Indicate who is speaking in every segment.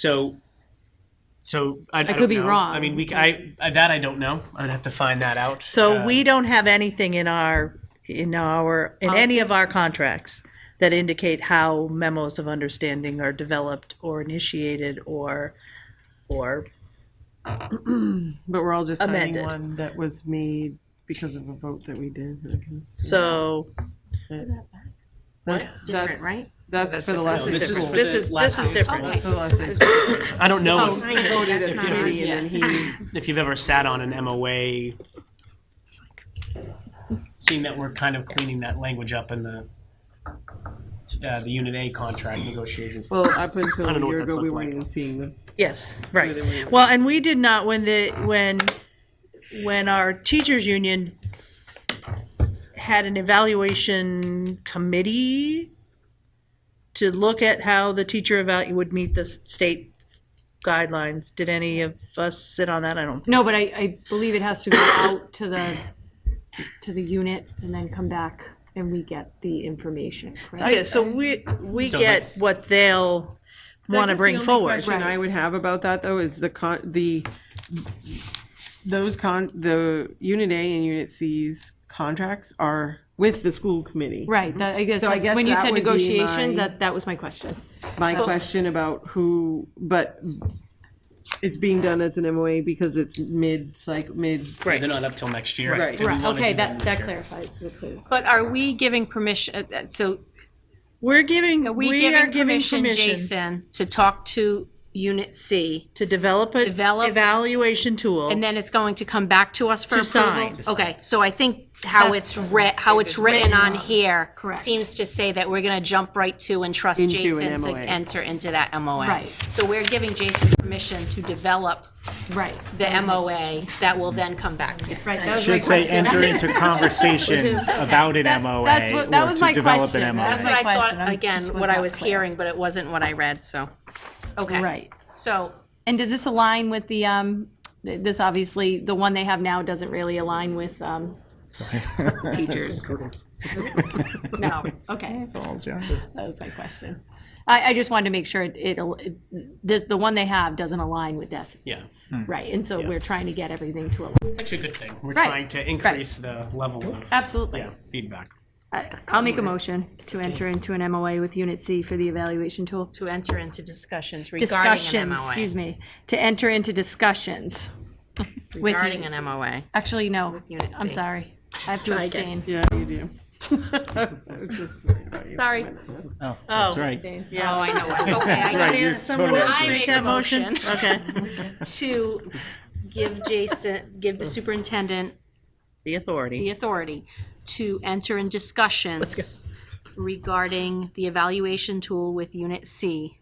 Speaker 1: So, so I, I
Speaker 2: could
Speaker 1: don't
Speaker 2: be
Speaker 1: know.
Speaker 2: wrong,
Speaker 1: I mean, we I, I that I don't know. I'd have to find that out.
Speaker 3: So
Speaker 1: Uh,
Speaker 3: we don't have anything in our, in our, in any of our contracts that indicate how memos of understanding are developed or initiated or, or,
Speaker 4: But we're all just
Speaker 3: Amended.
Speaker 4: signing one that was made because of a vote that we did. I guess.
Speaker 3: so
Speaker 4: That's
Speaker 2: different,
Speaker 4: that's-
Speaker 2: right?
Speaker 4: That's for the
Speaker 1: different.
Speaker 4: last
Speaker 1: No,
Speaker 4: day
Speaker 1: this is
Speaker 4: school.
Speaker 1: for
Speaker 3: this
Speaker 1: the
Speaker 3: is,
Speaker 1: last
Speaker 3: this is
Speaker 1: day of school.
Speaker 3: different.
Speaker 4: That's for the last day school.
Speaker 1: I don't know
Speaker 4: Oh, he voted at
Speaker 2: not
Speaker 4: committee and then he,
Speaker 1: if, if you've ever sat on an MOA. Seeing that we're kind of cleaning that language up in the uh, the Unit A contract negotiations.
Speaker 4: well, up until
Speaker 1: I don't know
Speaker 4: a
Speaker 1: what
Speaker 4: year
Speaker 1: that's
Speaker 4: ago, we
Speaker 1: looked
Speaker 4: weren't
Speaker 1: like.
Speaker 4: even seeing them.
Speaker 3: Yes,
Speaker 4: they
Speaker 3: right.
Speaker 4: were-
Speaker 3: Well, and we did not, when the, when, when our teachers union had an evaluation committee to look at how the teacher evalu, would meet the state guidelines, did any of us sit on that? I don't,
Speaker 2: No, but I, I believe it has to go out to the, to the unit and then come back and we get the information, correct?
Speaker 3: okay, so we, we
Speaker 1: So
Speaker 3: get
Speaker 1: that's-
Speaker 3: what they'll want
Speaker 4: I
Speaker 3: to
Speaker 4: guess the
Speaker 3: bring
Speaker 4: only
Speaker 3: forward.
Speaker 4: Question I would have about that though is the con, the, those con, the unit A and unit C's contracts are with the school committee.
Speaker 2: Right, that, I guess,
Speaker 4: So I
Speaker 2: like,
Speaker 4: guess
Speaker 2: when you
Speaker 4: that
Speaker 2: said
Speaker 4: would be my-
Speaker 2: negotiations, that, that was my question.
Speaker 4: My question about who, but it's being done as an MOA because it's mid, like, mid,
Speaker 1: Right. They're not up till next year.
Speaker 4: Right.
Speaker 1: Do we
Speaker 2: Right,
Speaker 1: wanna
Speaker 2: okay,
Speaker 1: do
Speaker 2: that, that
Speaker 1: next year?
Speaker 2: clarified.
Speaker 5: But are we giving permission, uh, uh, so
Speaker 3: We're giving,
Speaker 5: are we
Speaker 3: we are
Speaker 5: giving
Speaker 3: giving
Speaker 5: permission,
Speaker 3: permission
Speaker 5: Jason, to talk to Unit C?
Speaker 3: to develop a
Speaker 5: Develop-
Speaker 3: evaluation tool.
Speaker 5: And then it's going to come back to us for
Speaker 3: To
Speaker 5: approval?
Speaker 3: sign.
Speaker 5: Okay, so I think how it's re, how it's written on here
Speaker 2: Correct.
Speaker 5: seems to say that we're gonna jump right to and trust
Speaker 4: Into
Speaker 5: Jason
Speaker 4: an
Speaker 5: to
Speaker 4: MOA.
Speaker 5: enter into that MOA.
Speaker 2: Right.
Speaker 5: So we're giving Jason permission to develop
Speaker 2: Right,
Speaker 5: the MOA that will then come back.
Speaker 2: right, that was my
Speaker 6: Should say
Speaker 2: question.
Speaker 6: enter into conversations about an MOA
Speaker 2: that's what- that
Speaker 6: or
Speaker 2: was
Speaker 6: to
Speaker 2: my
Speaker 6: develop
Speaker 2: question.
Speaker 6: an MOA.
Speaker 5: That's what
Speaker 2: my
Speaker 5: I
Speaker 2: question.
Speaker 5: thought,
Speaker 2: I'm-
Speaker 5: again,
Speaker 2: just was
Speaker 5: what I
Speaker 2: not
Speaker 5: was
Speaker 2: clear.
Speaker 5: hearing, but it wasn't what I read, so, okay.
Speaker 2: Right.
Speaker 5: So,
Speaker 2: And does this align with the, um, th- this obviously, the one they have now doesn't really align with, um, teachers? No, okay, that was my question. I, I just wanted to make sure it, it, al- it- this, the one they have doesn't align with this,
Speaker 1: Yeah.
Speaker 2: right? And so we're trying to get everything to align.
Speaker 1: Actually, a good thing. We're
Speaker 2: Right.
Speaker 1: trying to increase the level of
Speaker 2: Absolutely.
Speaker 1: yeah, feedback.
Speaker 2: I- I'll make a motion to enter into an MOA with Unit C for the evaluation tool.
Speaker 5: to enter into discussions regarding an MOA.
Speaker 2: Discussions, excuse me, to enter into discussions. with
Speaker 5: Regarding
Speaker 2: Unit C.
Speaker 5: an MOA.
Speaker 2: Actually, no,
Speaker 5: Unit
Speaker 2: I'm
Speaker 5: C.
Speaker 2: sorry. I have to abstain.
Speaker 4: yeah, you do. I was just worried about you.
Speaker 2: Sorry.
Speaker 6: Oh, that's right.
Speaker 5: Oh, I know. Okay, I
Speaker 6: That's
Speaker 5: got
Speaker 6: right. You're
Speaker 3: Someone
Speaker 6: totally
Speaker 3: else
Speaker 5: I
Speaker 3: make
Speaker 5: make
Speaker 3: that
Speaker 5: a
Speaker 3: motion?
Speaker 5: motion.
Speaker 3: Okay.
Speaker 5: to give Jason, give the superintendent
Speaker 3: The
Speaker 5: the
Speaker 3: authority.
Speaker 5: authority to enter in discussions regarding the evaluation tool with Unit C.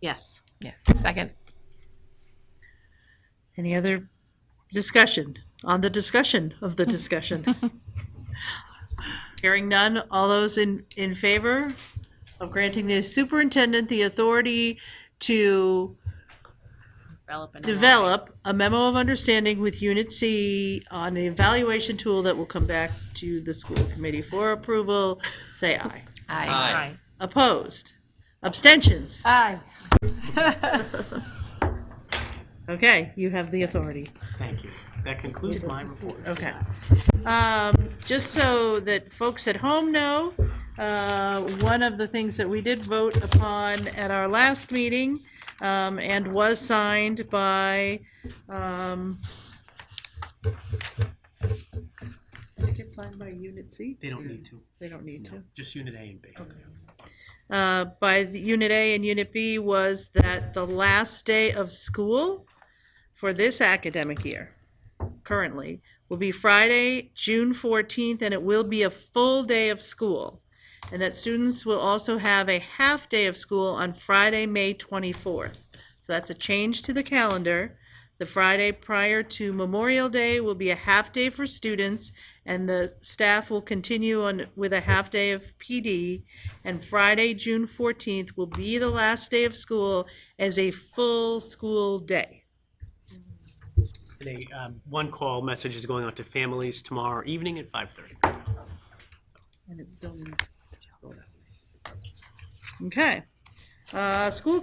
Speaker 5: Yes.
Speaker 3: Any other discussion on the discussion of the discussion? Hearing none, all those in, in favor of granting the superintendent the authority to develop a memo of understanding with Unit C on the evaluation tool that will come back to the school committee for approval, say aye.
Speaker 5: Aye.
Speaker 3: Opposed? Abstentions?
Speaker 2: Aye.
Speaker 3: Okay, you have the authority.
Speaker 1: Thank you. That concludes my report.
Speaker 3: Okay. Um, just so that folks at home know, uh, one of the things that we did vote upon at our last meeting, um, and was signed by, um, did it get signed by Unit C?
Speaker 1: They don't need to.
Speaker 3: They don't need to.
Speaker 1: Just Unit A and B.
Speaker 3: Uh, by the Unit A and Unit B was that the last day of school for this academic year, currently, will be Friday, June 14th, and it will be a full day of school. And that students will also have a half day of school on Friday, May 24th. So that's a change to the calendar. The Friday prior to Memorial Day will be a half day for students, and the staff will continue on with a half day of PD. And Friday, June 14th, will be the last day of school as a full school day.
Speaker 1: And a, um, one call message is going out to families tomorrow evening at 5:30.
Speaker 3: Okay. Uh, School